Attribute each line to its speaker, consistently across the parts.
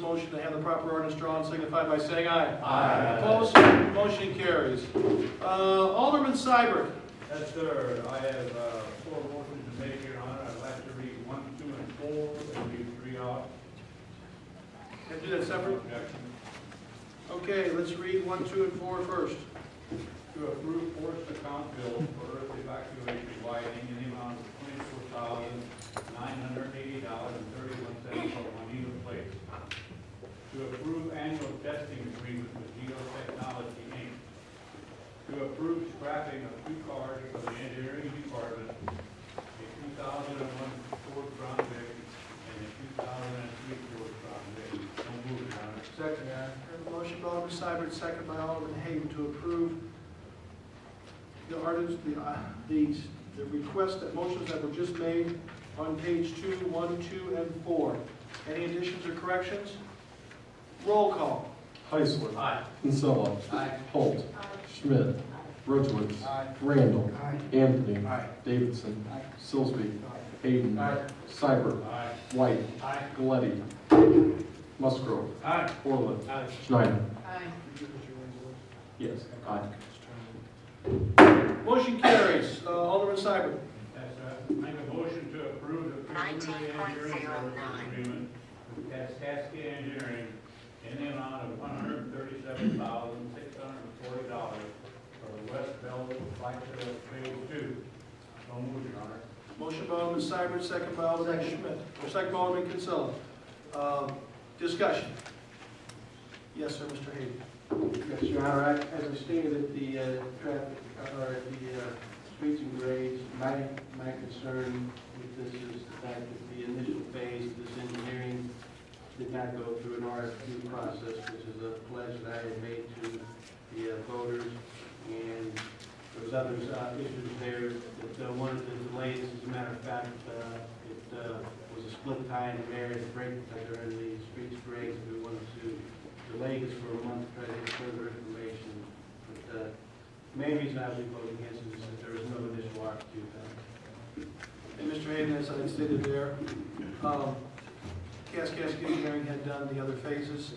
Speaker 1: motion to have the proper ordinance drawn, signify by saying aye.
Speaker 2: Aye.
Speaker 1: Opposed, motion carries. Uh, Alderman Seibert,
Speaker 2: Yes, sir, I have uh, four motions to make, Your Honor. I'd like to read one, two, and four, and leave three out.
Speaker 1: can I do that separate?
Speaker 2: Objection.
Speaker 1: Okay, let's read one, two, and four first.
Speaker 2: to approve forest account bill for earth evacuation lighting in the amount of twenty-four thousand, nine hundred eighty dollars and thirty-one cents for Juanita Place. To approve annual testing agreement with Geotechnology Inc. To approve scrapping of two cars for the engineering department, a two thousand and one Ford Crown Vic and a two thousand and three Ford Crown Vic. So moved, Your Honor.
Speaker 1: Second, I have a motion by Alderman Seibert, second by Alderman Hayden to approve the ordinance, the, uh, these, the request that motions that were just made on page two, one, two, and four. Any additions or corrections? Roll call.
Speaker 3: Heisler. Kinsella.
Speaker 1: Aye.
Speaker 3: Holt. Schmidt. Ridgewood.
Speaker 1: Aye.
Speaker 3: Randall. Anthony.
Speaker 1: Aye.
Speaker 3: Davidson.
Speaker 1: Aye.
Speaker 3: Sillsby. Hayden.
Speaker 1: Aye.
Speaker 3: Seibert.
Speaker 2: Aye.
Speaker 3: White.
Speaker 2: Aye.
Speaker 3: Galetti. Musgrove.
Speaker 2: Aye.
Speaker 3: Orland.
Speaker 2: Aye.
Speaker 3: Schneider.
Speaker 4: Aye.
Speaker 3: Yes. Aye.
Speaker 1: Motion carries. Uh, Alderman Seibert.
Speaker 2: Yes, sir. uh, Make a motion to approve the preliminary engineering services
Speaker 4: 19.09.
Speaker 2: agreement with Kaskaskia Engineering in the amount of one hundred thirty-seven thousand, six hundred and forty dollars for West Belleville Flight Trail Phase Two. So moved, Your Honor.
Speaker 1: Motion by Alderman Seibert, second by Alderman Schmidt, or second by Alderman Kinsella. Um, Discussion. Yes, sir, Mr. Hayden.
Speaker 5: Yes, Your Honor, I- as I stated at the uh, traffic, or at the uh, streets and grades, my, my concern with this is the fact that the initial phase of this engineering did not go through an RFQ process, which is a pledge that I had made to the uh, voters, and there was other issues there that uh, wanted to delay this. As a matter of fact, uh, it uh, was a split tie in the area, the brake protector and the streets grades, we wanted to delay this for a month, to try to get further information. But uh, the main reason I was voting against it is that there is no initial RFQ done.
Speaker 1: And Mr. Hayden, as I stated there, um, Kaskaskia Engineering had done the other phases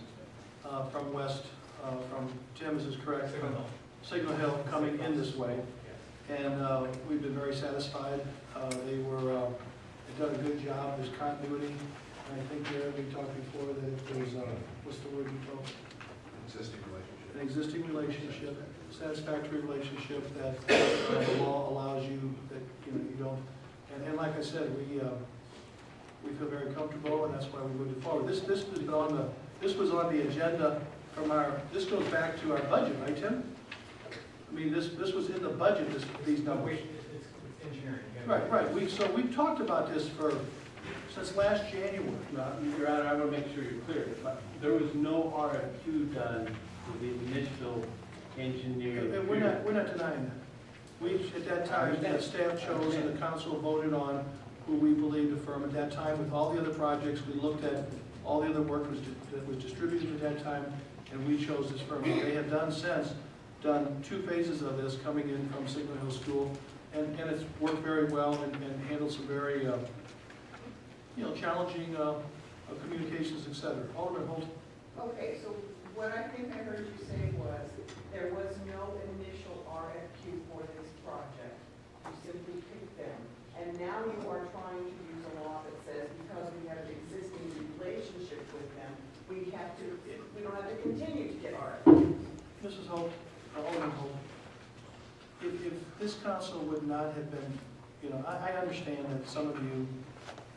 Speaker 1: uh, from west, uh, from, Tim's is correct, from Signal Hill coming in this way. And uh, we've been very satisfied. Uh, They were, uh, they've done a good job, there's continuity. And I think there, we talked before, that there's, uh, what's the word you told?
Speaker 6: Existing
Speaker 1: an
Speaker 6: relationship.
Speaker 1: existing relationship, satisfactory relationship that uh, the law allows you, that, you know, you don't, and, and like I said, we, uh, we feel very comfortable, and that's why we moved it forward. This, this was on the, this was on the agenda from our, this goes back to our budget, right, Tim? I mean, this, this was in the budget, this, these numbers.
Speaker 2: Engineering.
Speaker 1: Right, right, we, so we've talked about this for, since last January.
Speaker 5: Now, Uh, Your Honor, I want to make sure you're clear, but there was no RFQ done with the initial engineering.
Speaker 1: And we're not, we're not denying that. We, at that time, the staff chose and the council voted on who we believed the firm at that time. With all the other projects, we looked at, all the other work was, that was distributed at that time, and we chose this firm. They have done since, done two phases of this, coming in from Signal Hill School, and, and it's worked very well and, and handled some very, uh, you know, challenging, uh, uh, communications, et cetera. Alderman Holt?
Speaker 7: Okay, so what I think I heard you say was, there was no initial RFQ for this project. You simply picked them. And now you are trying to use a law that says, because we have an existing relationship with them, we have to, we don't have to continue to get RFQs.
Speaker 1: Mrs. Holt, uh, Alderman Holt, if, if this council would not have been, you know, I, I understand that some of you,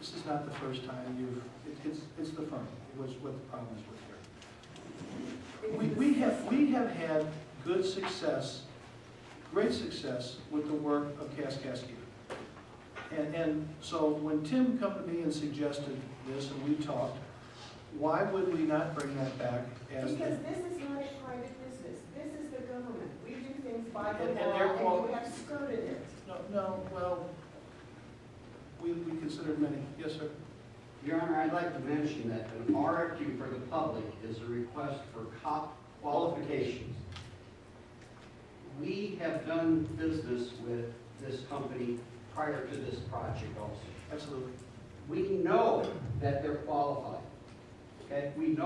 Speaker 1: this is not the first time you've, it- it's, it's the firm, it was what the problem is with here. We, we have, we have had good success, great success with the work of Kaskaskia. And, and so when Tim come to me and suggested this and we talked, why would we not bring that back as the?
Speaker 7: Because this is not a private business, this is the government. We do things by the
Speaker 1: And- and they're
Speaker 7: law,
Speaker 1: qual-
Speaker 7: and you have skirted it.
Speaker 1: No, no, well, we, we considered many, yes, sir.
Speaker 8: Your Honor, I'd like to mention that an RFQ for the public is a request for cop qualifications. We have done business with this company prior to this project also.
Speaker 1: Absolutely.
Speaker 8: We know that they're qualified. Okay, we know